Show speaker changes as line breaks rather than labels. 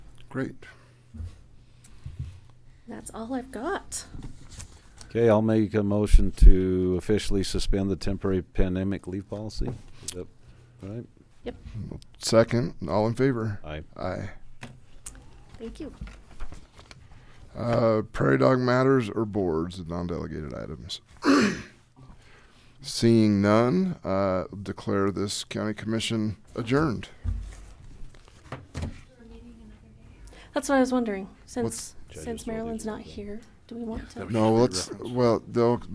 Great.
That's all I've got.
Okay, I'll make a motion to officially suspend the temporary pandemic leave policy. Yep. Right?
Second, all in favor?
Aye.
Aye.
Thank you.
Uh, prairie dog matters or boards, the non-delegated items. Seeing none, uh, declare this county commission adjourned.
That's what I was wondering. Since
What's-
Judges
since
don't do
Marilyn's not
that.
here, do we want to?
No, let's, well, they'll,